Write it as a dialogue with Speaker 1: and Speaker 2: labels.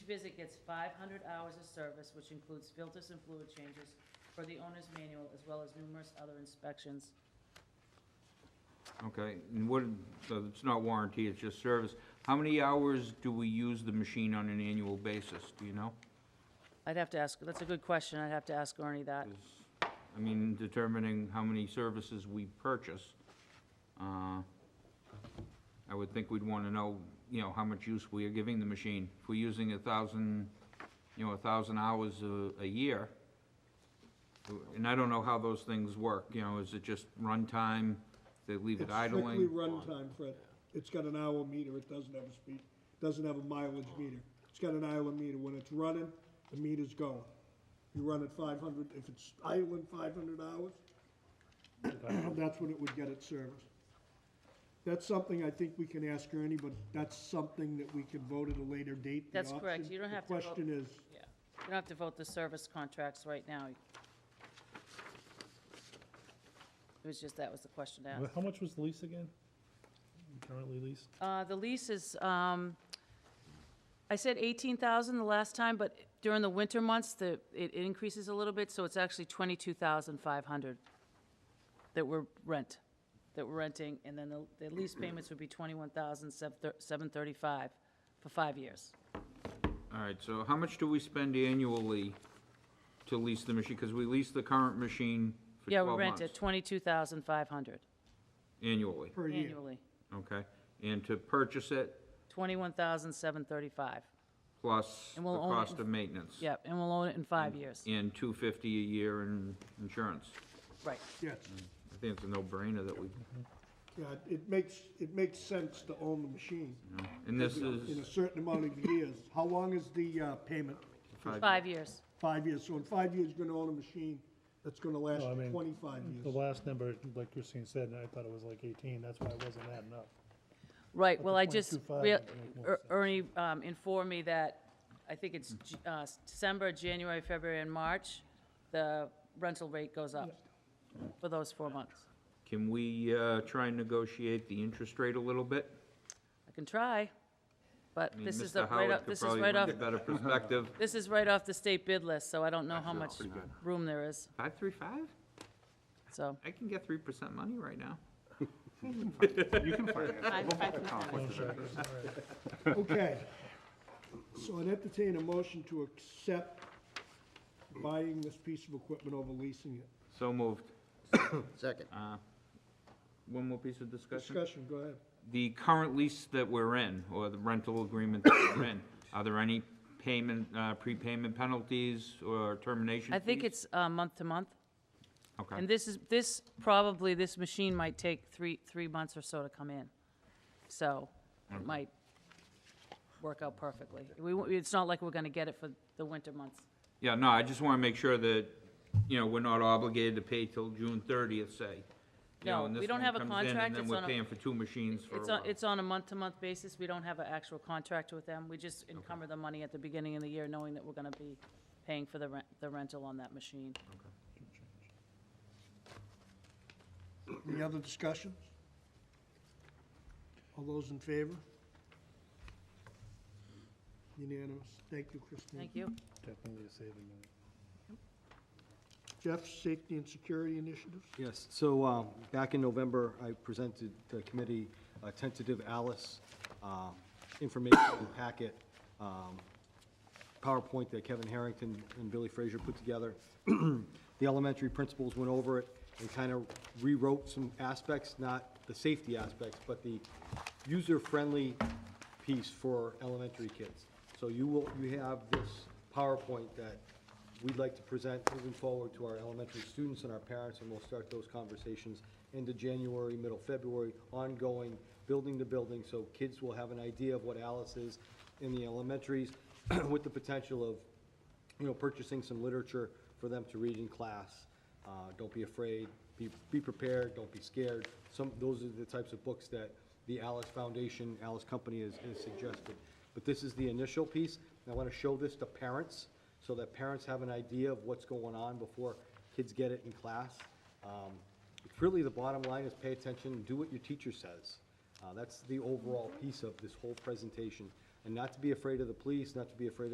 Speaker 1: visit gets five hundred hours of service, which includes filters and fluid changes for the owner's manual, as well as numerous other inspections.
Speaker 2: Okay, and what, so it's not warranty, it's just service. How many hours do we use the machine on an annual basis, do you know?
Speaker 1: I'd have to ask, that's a good question, I'd have to ask Ernie that.
Speaker 2: 'Cause, I mean, determining how many services we purchase, uh, I would think we'd want to know, you know, how much use we are giving the machine. If we're using a thousand, you know, a thousand hours a, a year, and I don't know how those things work, you know, is it just runtime, they leave it idling?
Speaker 3: It's strictly runtime, Fred. It's got an hour meter, it doesn't have a speed, doesn't have a mileage meter. It's got an hour meter, when it's running, the meter's going. You run it five hundred, if it's idling five hundred hours, that's when it would get its service. That's something I think we can ask Ernie, but that's something that we can vote at a later date. the
Speaker 1: That's correct.
Speaker 3: option.
Speaker 1: You don't have to
Speaker 3: The
Speaker 1: vote-
Speaker 3: question is,
Speaker 1: Yeah. You don't have to vote the service contracts right now. It was just, that was the question to ask.
Speaker 4: How much was the lease again? Currently leased?
Speaker 1: Uh, The lease is, um, I said 18,000 the last time, but during the winter months, the, it increases a little bit, so it's actually 22,500 that we're rent, that we're renting, and then the- the lease payments would be 21,735 for five years.
Speaker 2: All right, so how much do we spend annually to lease the machine? Because we lease the current machine for
Speaker 1: Yeah,
Speaker 2: 12
Speaker 1: we rent
Speaker 2: months.
Speaker 1: at 22,500
Speaker 2: Annually,
Speaker 3: per year,
Speaker 1: annually,
Speaker 2: okay? And to purchase it
Speaker 1: 21,735.
Speaker 2: plus the
Speaker 1: And we'll own it
Speaker 2: cost
Speaker 1: in-
Speaker 2: of maintenance?
Speaker 1: Yep, and we'll own it in five years.
Speaker 2: And 250 a year in insurance?
Speaker 1: Right.
Speaker 3: yes.
Speaker 2: I think it's a no-brainer that we,
Speaker 3: Yeah, it makes, it makes sense to own the machine.
Speaker 2: and this
Speaker 3: you know, In a
Speaker 2: is
Speaker 3: certain amount of years. How long is the uh, payment?
Speaker 2: five,
Speaker 1: Five years.
Speaker 3: Five years. So in five years, you're gonna own a machine that's gonna last
Speaker 4: No, I mean,
Speaker 3: twenty-five
Speaker 4: The
Speaker 3: years.
Speaker 4: last number, like Christine said, I thought it was like eighteen, that's why it wasn't adding up.
Speaker 1: Right,
Speaker 4: But
Speaker 1: well,
Speaker 4: the
Speaker 1: I just,
Speaker 4: 0.25
Speaker 1: rea-
Speaker 4: would make more
Speaker 1: Er-
Speaker 4: sense.
Speaker 1: Ernie um, informed me that, I think it's J- uh, December, January, February, and March, the rental rate goes up for those four months.
Speaker 2: can we uh, try and negotiate the interest rate a little bit?
Speaker 1: I can try, but
Speaker 2: I mean,
Speaker 1: this is the,
Speaker 2: Mr.
Speaker 1: right
Speaker 2: Howard
Speaker 1: off,
Speaker 2: could
Speaker 1: this is
Speaker 2: probably
Speaker 1: right off,
Speaker 2: lend a better perspective.
Speaker 1: this is right off the state bid list, so I don't know how much room there is,
Speaker 2: 535?
Speaker 1: so.
Speaker 2: I can get 3% money right now.
Speaker 5: You can find it.
Speaker 1: I-
Speaker 5: We'll
Speaker 1: I
Speaker 5: make the
Speaker 1: can
Speaker 5: conflict of interest.
Speaker 3: Okay. So I'd entertain a motion to accept buying this piece of equipment over leasing it.
Speaker 2: So moved.
Speaker 6: Second.
Speaker 2: Uh, One more piece of discussion?
Speaker 3: Discussion, go ahead.
Speaker 2: The current lease that we're in, or the rental agreement that we're in, are there any payment, uh, prepayment penalties or termination
Speaker 1: I think
Speaker 2: fees?
Speaker 1: it's uh, month to month,
Speaker 2: Okay,
Speaker 1: and this is, this, probably, this machine might take three, three months or so to come in, so it might work out perfectly. We, won't- it's not like we're gonna get it for the winter months.
Speaker 2: yeah, no, I just want to make sure that, you know, we're not obligated to pay till June thirtieth, say. You know,
Speaker 1: No,
Speaker 2: and
Speaker 1: we
Speaker 2: this
Speaker 1: don't
Speaker 2: one
Speaker 1: have a
Speaker 2: comes in,
Speaker 1: contract, it's
Speaker 2: And then
Speaker 1: on a-
Speaker 2: we're paying for two machines for a
Speaker 1: It's on,
Speaker 2: while.
Speaker 1: it's on a month-to-month basis, we don't have an actual contract with them, we just encumber the money at the beginning of the year, knowing that we're gonna be paying for the rent, the rental on that machine.
Speaker 3: Any other discussions? All those in favor? Unanimous. Thank you, Christine.
Speaker 1: Thank you.
Speaker 4: Definitely a saving money.
Speaker 3: Jeff, safety and security initiatives?
Speaker 5: Yes, so um, back in November, I presented the committee a tentative Alice um, information packet, um, PowerPoint that Kevin Harrington and Billy Frazier put together. The elementary principals went over it and kind of rewrote some aspects, not the safety aspects, but the user-friendly piece for elementary kids. So you will, you have this PowerPoint that we'd like to present moving forward to our elementary students and our parents, and we'll start those conversations into January, middle February, ongoing, building to building, so kids will have an idea of what Alice is in the elementaries, with the potential of, you know, purchasing some literature for them to read in class. Uh, Don't be afraid, be, be prepared, don't be scared. Some, those are the types of books that the Alice Foundation, Alice Company has has suggested. But this is the initial piece, and I want to show this to parents, so that parents have an idea of what's going on before kids get it in class. Um, it's Really, the bottom line is pay attention, do what your teacher says. Uh, That's the overall piece of this whole presentation. And not to be afraid of the police, not to be afraid of